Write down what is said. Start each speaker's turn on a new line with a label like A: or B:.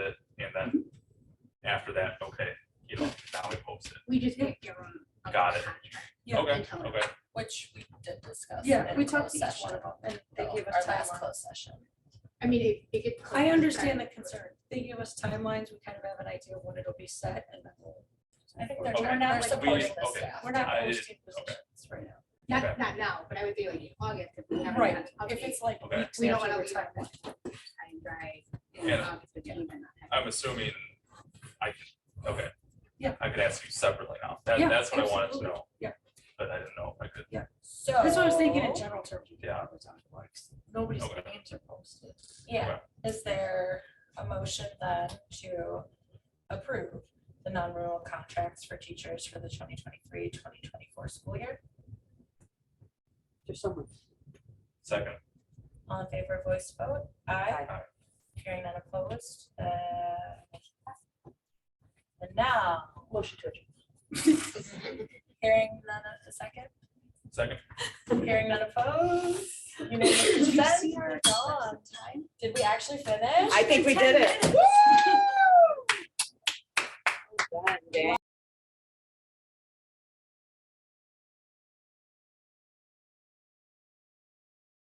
A: We just can't give them. a
B: Got it.
A: contract
C: Yeah.
B: Okay,
A: until-
B: okay,
C: Which we did discuss.
A: Yeah,
C: in
A: we talked
C: closed
A: to each
C: session,
A: one of them and they
C: though,
A: gave us
C: Our last
A: timeline.
C: closed session.
A: I mean, it, it gets.
D: I understand the
A: close.
D: concern. They give us timelines, we kind of have an idea of when it'll be set and then we'll.
C: I think
B: Okay.
C: they're,
D: We're
C: trying-
D: not
C: they're
D: like-
C: supporting
B: We-
C: the
B: okay.
C: staff.
D: We're not
B: I-
D: posting
B: okay.
D: positions right now.
A: Not, not now, but I would be like in August if we haven't.
C: Right.
A: had an
C: If
A: update.
C: it's like
B: Okay.
C: weeks
A: We don't
C: after
A: wanna
C: we're
A: leave it
C: talking.
A: time dry.
B: Yeah.
A: Yeah.
B: I'm assuming I could, okay.
D: Yeah.
B: I could ask you separately now, that,
D: Yeah,
B: that's what I wanted to
D: absolutely.
B: know.
D: Yeah.
B: But I didn't know if I could,
C: So.
D: That's what I was thinking in general terms. you
B: Yeah.
D: know, it's on the works. Nobody's
B: Okay.
D: names are posted.
C: Yeah, is there a motion then to approve the non-rural contracts for teachers for the 2023-2024 school year?
E: There's someone.
B: second,
C: All in favor, voice vote, aye. Hearing none opposed, uh. motion passes. And now,
E: Motion to adjourn.
C: hearing none of the second,
B: second,
C: hearing none opposed. You know,
E: Did you
C: then
E: see
C: we're gone. Did we actually finish?
E: I think we did it.
C: Woo!